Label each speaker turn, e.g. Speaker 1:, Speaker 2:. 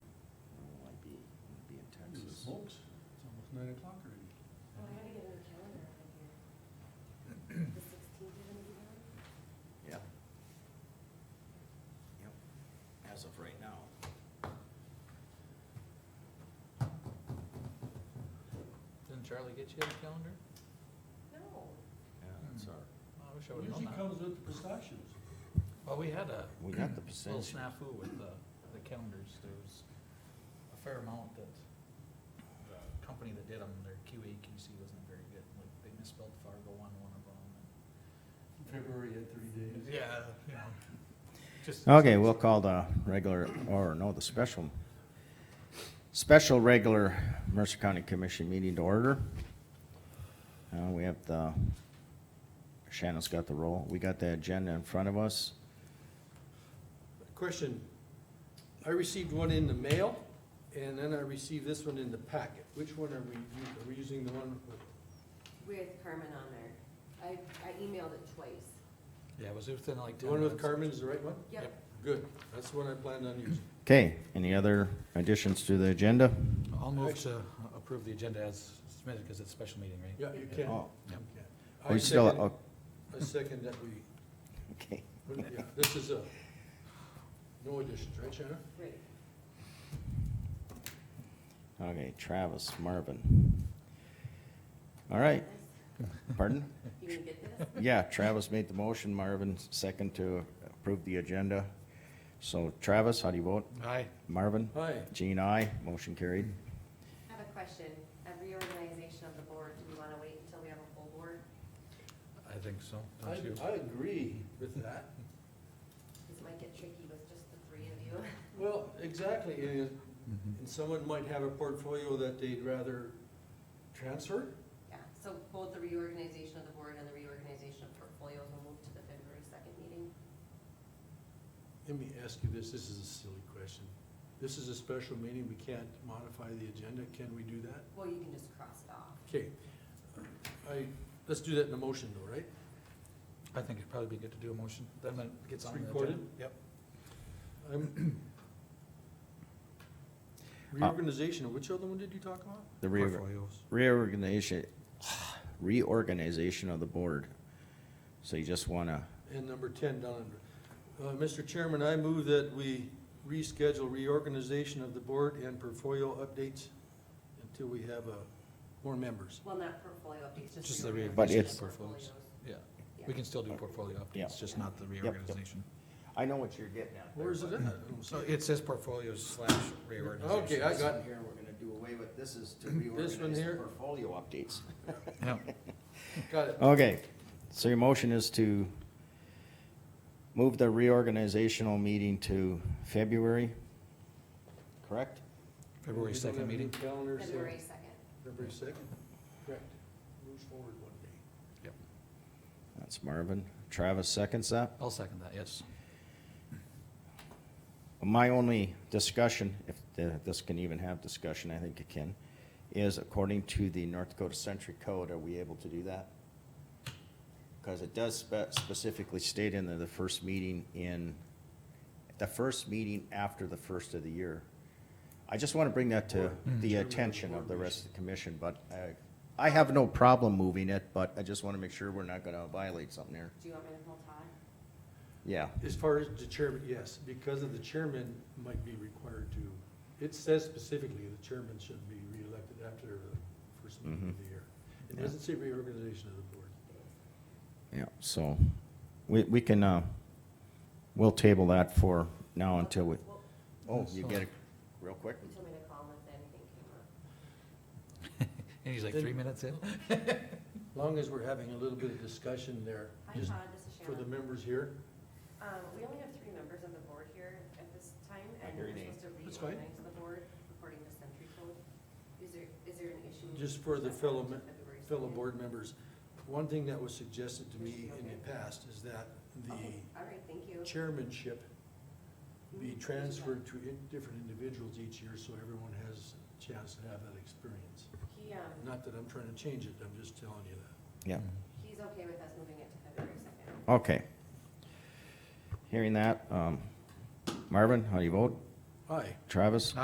Speaker 1: nine o'clock already.
Speaker 2: Oh, I gotta get another calendar out of here. The sixteenth, you're gonna be gone?
Speaker 3: Yeah. Yep, as of right now.
Speaker 4: Didn't Charlie get you the calendar? Oh,
Speaker 2: No.
Speaker 3: Yeah,
Speaker 5: Hmm.
Speaker 1: that's
Speaker 3: our.
Speaker 4: I wish I would've known
Speaker 1: Usually
Speaker 4: that.
Speaker 1: comes with the pistachios.
Speaker 4: Well, we had a
Speaker 3: We got the
Speaker 4: little
Speaker 3: percentage.
Speaker 4: snafu with the, the calendars, there was a fair amount that the company that did them, their QA QC wasn't very good, like, they misspelled Fargo on one of them.
Speaker 1: February had three days.
Speaker 4: Yeah, you know, just.
Speaker 3: Okay, we'll call the regular, or no, the special, special regular Mercer County Commission meeting to order. Uh, we have the, Shannon's got the roll. We got the agenda in front of us.
Speaker 5: Question. I received one in the mail, and then I received this one in the packet. Which one are we, u- are we using the one? with-
Speaker 2: With Carmen on there. I, I emailed it twice.
Speaker 4: Yeah, it was within like
Speaker 5: The
Speaker 4: ten
Speaker 5: one with
Speaker 4: minutes.
Speaker 5: Carmen is the right one?
Speaker 2: Yep.
Speaker 5: Good. That's the one I planned on using.
Speaker 3: Okay, any other additions to the agenda?
Speaker 4: I'll move to approve the agenda as submitted, cause it's a special meeting, right?
Speaker 5: Yeah, you can.
Speaker 3: Oh,
Speaker 5: I
Speaker 3: we still,
Speaker 5: second-
Speaker 3: oh,
Speaker 5: I second that we,
Speaker 3: okay.
Speaker 5: yeah, this is a, no additions, right, Shannon?
Speaker 2: Great.
Speaker 3: Okay, Travis Marvin. All right, pardon?
Speaker 2: You gonna get this?
Speaker 3: Yeah, Travis made the motion, Marvin second to approve the agenda. So Travis, how do you vote?
Speaker 4: Aye.
Speaker 3: Marvin?
Speaker 5: Hi.
Speaker 3: Jean, aye. Motion carried.
Speaker 2: I have a question. At reorganization of the board, do we wanna wait until we have a full board?
Speaker 4: I think so,
Speaker 5: I,
Speaker 4: don't you?
Speaker 5: I agree with that.
Speaker 2: Cause it might get tricky with just the three of you.
Speaker 5: Well, exactly, and,
Speaker 4: Mhm.
Speaker 5: and someone might have a portfolio that they'd rather transfer.
Speaker 2: Yeah, so both the reorganization of the board and the reorganization of portfolios will move to the February second meeting.
Speaker 5: Let me ask you this, this is a silly question. This is a special meeting, we can't modify the agenda, can we do that?
Speaker 2: Well, you can just cross it off.
Speaker 5: Okay, I, let's do that in a motion though, right?
Speaker 4: I think it'd probably be good to do a motion, then it
Speaker 5: It's
Speaker 4: gets on the agenda.
Speaker 5: recorded?
Speaker 4: Yep.
Speaker 5: I'm- Uh, Reorganization, which other one did you talk about?
Speaker 3: The reorg-
Speaker 4: Portfolios.
Speaker 3: reorganization, reorganization of the board. So you just wanna,
Speaker 5: And number ten down under. Uh, Mr. Chairman, I move that we reschedule reorganization of the board and portfolio updates until we have, uh, more members.
Speaker 2: Well, not portfolio updates, just.
Speaker 4: Just the
Speaker 2: reorganization
Speaker 3: But
Speaker 2: of
Speaker 3: it's-
Speaker 4: Portfolios. Yeah,
Speaker 2: Yeah.
Speaker 4: we can still do portfolio
Speaker 3: Yeah.
Speaker 4: updates, just
Speaker 2: Yeah.
Speaker 4: not the
Speaker 3: yep.
Speaker 4: reorganization.
Speaker 3: I know what you're getting at. there,
Speaker 5: Where's it
Speaker 3: but-
Speaker 5: at? I don't see
Speaker 4: So it says portfolios slash reorganization.
Speaker 5: Okay, I got it.
Speaker 3: Here, we're gonna do away with, this is to
Speaker 5: one
Speaker 3: reorganize the
Speaker 5: here?
Speaker 3: portfolio updates.
Speaker 4: Yeah,
Speaker 5: Got it.
Speaker 3: Okay, so your motion is to move the reorganizational meeting to February, correct?
Speaker 4: February
Speaker 5: We don't have
Speaker 4: second
Speaker 5: any
Speaker 4: meeting.
Speaker 5: calendars, so-
Speaker 2: February second.
Speaker 5: February second? Correct. Moves forward one day.
Speaker 3: That's Marvin. Travis seconds that.
Speaker 4: I'll second that, yes.
Speaker 3: My only discussion, if the- this can even have discussion, I think it can, is according to the North Dakota Century Code, are we able to do that? Because it does spe- specifically state in there the first meeting in, the first meeting after the first of the year. I just want to bring that to the attention of the rest of the commission, but I, I have no problem moving it, but I just want to make sure we're not going to violate something here.
Speaker 2: Do you want me to hold Todd?
Speaker 3: Yeah.
Speaker 5: As far as the chairman, yes, because of the chairman might be required to, it says specifically the chairman should be reelected after the first meeting of the year. It doesn't say reorganization of the board.
Speaker 3: Yeah, so we, we can, uh, we'll table that for now until we,
Speaker 2: Well,
Speaker 3: oh, you get it real quick?
Speaker 2: You told me to call him if anything came up.
Speaker 4: And he's like, three minutes in?
Speaker 5: Long as we're having a little bit of discussion there,
Speaker 2: Hi
Speaker 5: just
Speaker 2: Todd, this is
Speaker 5: for the
Speaker 2: Shannon.
Speaker 5: members here.
Speaker 2: Um, we only have three members of the board here at this time,
Speaker 3: I
Speaker 2: and
Speaker 3: hear your
Speaker 2: we're
Speaker 3: name.
Speaker 2: supposed to
Speaker 5: That's fine.
Speaker 2: reorganize the board according to century code. Is there, is there an issue?
Speaker 5: Just for the fellow me-
Speaker 2: February
Speaker 5: fellow
Speaker 2: 2nd?
Speaker 5: board members, one thing that was suggested to me in the past is that
Speaker 2: Okay,
Speaker 5: the
Speaker 2: Oh, All right, thank you.
Speaker 5: chairmanship be transferred to in- different individuals each year, so everyone has a chance to have that experience.
Speaker 2: He, um,
Speaker 5: Not that I'm trying to change it, I'm just telling you that.
Speaker 3: Yeah,
Speaker 2: he's okay with us moving it to February second.
Speaker 3: okay. Hearing that, um, Marvin, how do you vote?
Speaker 5: Aye.
Speaker 3: Travis?